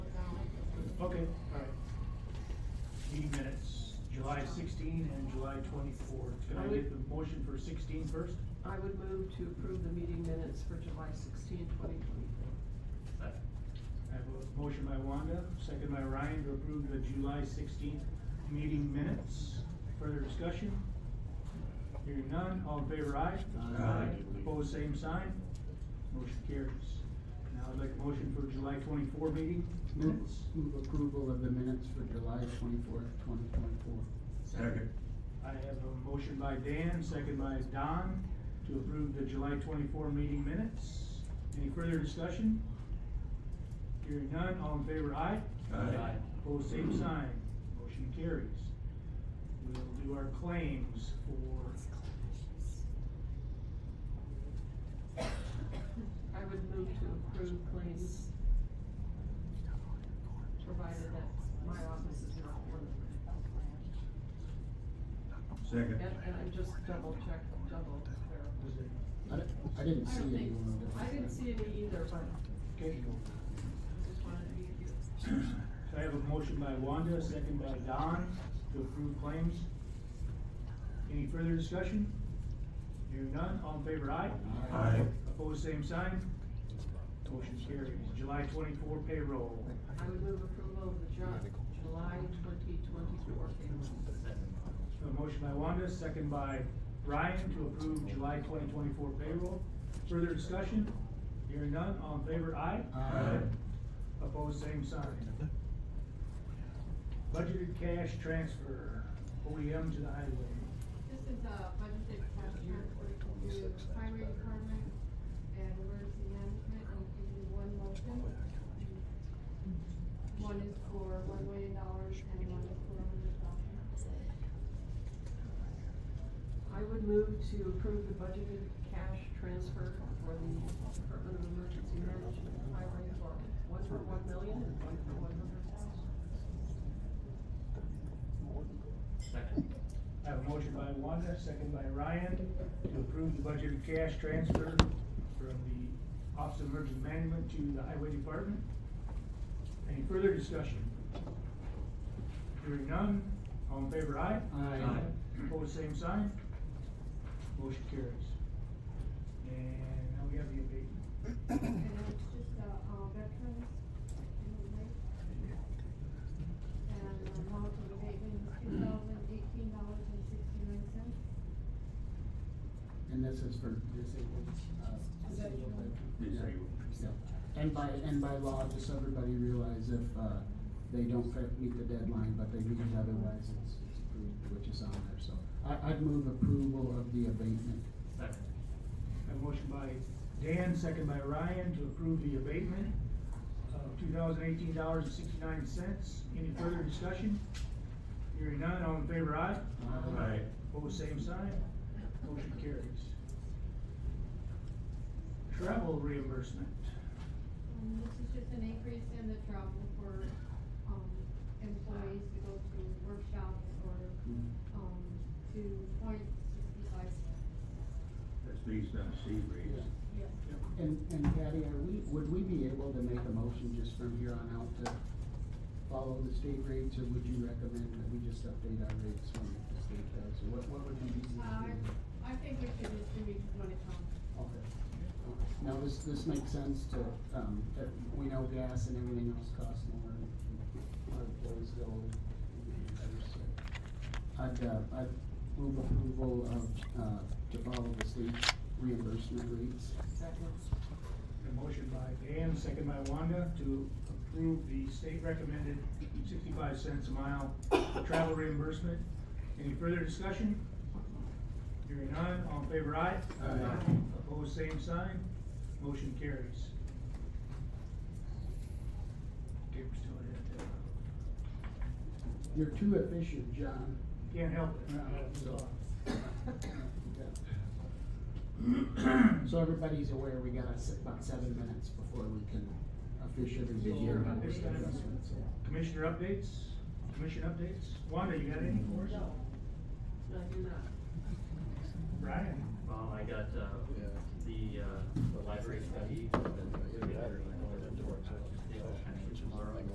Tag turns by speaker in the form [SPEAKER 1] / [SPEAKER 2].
[SPEAKER 1] Okay, all right. Meeting minutes, July sixteen and July twenty-four. Can I get the motion for 16 first?
[SPEAKER 2] I would move to approve the meeting minutes for July 16, 2024.
[SPEAKER 1] I have a motion by Wanda, second by Ryan to approve the July sixteenth meeting minutes. Further discussion? Hearing none, all in favor, aye?
[SPEAKER 3] Aye.
[SPEAKER 1] Opposed, same sign? Motion carries. Now I'd like a motion for July twenty-four meeting
[SPEAKER 4] Move
[SPEAKER 1] minutes.
[SPEAKER 4] move approval of the minutes for July twenty-fourth, twenty twenty-four.
[SPEAKER 3] Second.
[SPEAKER 1] I have a motion by Dan, second by Don, to approve the July twenty-four meeting minutes. Any further discussion? Hearing none, all in favor, aye?
[SPEAKER 3] Aye. Aye.
[SPEAKER 1] Opposed, same sign, motion carries. We'll do our claims for,
[SPEAKER 2] I would move to approve claims, provided that my office is not one.
[SPEAKER 3] Second.
[SPEAKER 2] And, and I just double check, double
[SPEAKER 1] was
[SPEAKER 2] verify.
[SPEAKER 1] it,
[SPEAKER 4] I di- I didn't
[SPEAKER 2] I
[SPEAKER 4] see
[SPEAKER 2] don't
[SPEAKER 4] any
[SPEAKER 2] think,
[SPEAKER 4] one of those.
[SPEAKER 2] I didn't see any either, but I
[SPEAKER 1] okay,
[SPEAKER 2] just wanted to be here.
[SPEAKER 1] So I have a motion by Wanda, second by Don, to approve claims. Any further discussion? Hearing none, all in favor, aye?
[SPEAKER 4] Aye.
[SPEAKER 3] Aye.
[SPEAKER 1] Opposed, same sign? Motion carries. July twenty-four payroll.
[SPEAKER 2] I would move approval of the Ju- July twenty twenty-four payroll.
[SPEAKER 1] A motion by Wanda, second by Ryan to approve July twenty twenty-four payroll. Further discussion? Hearing none, all in favor, aye?
[SPEAKER 4] Aye.
[SPEAKER 1] Opposed, same sign. Budgeted cash transfer, OEM to the highway.
[SPEAKER 5] This is uh, a budgeted cash transfer to the highway department and emergency management, and it gives you one motion. One is for one million dollars and one is for a hundred thousand.
[SPEAKER 2] I would move to approve the budgeted cash transfer for the Department of Emergency Management Highway for one for one million and one for one hundred thousand.
[SPEAKER 1] I have a motion by Wanda, second by Ryan to approve the budgeted cash transfer from the Office of Emergency Management to the Highway Department. Any further discussion? Hearing none, all in favor, aye?
[SPEAKER 4] Aye.
[SPEAKER 1] Opposed, same sign. Motion carries. And now we have the abatement.
[SPEAKER 5] And then it's just, uh, uh, veterans in the lake. And the amount of abatement is two thousand eighteen dollars and sixty-nine cents.
[SPEAKER 4] And this is for disabled, uh, disabled veterans. Yeah.
[SPEAKER 3] Disabled.
[SPEAKER 4] Yeah. And by, and by law, just so everybody realize if, uh, they don't fit- meet the deadline, but they meet it otherwise, it's, it's approved, which is on there, so. I, I'd move approval of the abatement.
[SPEAKER 1] A motion by Dan, second by Ryan, to approve the abatement of two thousand eighteen dollars and sixty-nine cents. Any further discussion? Hearing none, all in favor, aye?
[SPEAKER 4] Aye.
[SPEAKER 3] Aye.
[SPEAKER 1] Opposed, same sign. Motion carries. Travel reimbursement.
[SPEAKER 5] Um, this is just an increase in the travel for, um, employees to go to workshops or, um, to point sixty-five.
[SPEAKER 3] That's based on sea rates.
[SPEAKER 5] Yes.
[SPEAKER 1] Yep.
[SPEAKER 4] And, and Patty, are we, would we be able to make a motion just from here on out to follow the state rates, or would you recommend that we just update our rates when the state does, or what, what would be easy
[SPEAKER 5] Uh,
[SPEAKER 4] to do?
[SPEAKER 5] I think we should just do each one at home.
[SPEAKER 4] Okay. Now, this, this makes sense to, um, that we know gas and everything else costs more, and our employees go, and others, so. I'd, uh, I'd move approval of, uh, to follow the state reimbursement rates.
[SPEAKER 2] Second.
[SPEAKER 1] A motion by Dan, second by Wanda, to approve the state recommended sixty-five cents a mile travel reimbursement. Any further discussion? Hearing none, all in favor, aye?
[SPEAKER 4] Aye.
[SPEAKER 1] Opposed, same sign, motion carries. Okay, we're still at, uh,
[SPEAKER 4] You're too efficient, John.
[SPEAKER 1] Can't help it.
[SPEAKER 4] So everybody's aware, we got us about seven minutes before we can officially begin.
[SPEAKER 2] Sure.
[SPEAKER 1] This time. Commissioner updates, commission updates, Wanda, you got any for us?
[SPEAKER 2] No. No, I do not.
[SPEAKER 1] Brian?
[SPEAKER 6] Um, I got, uh, the, uh, the library study. uh, Actually tomorrow,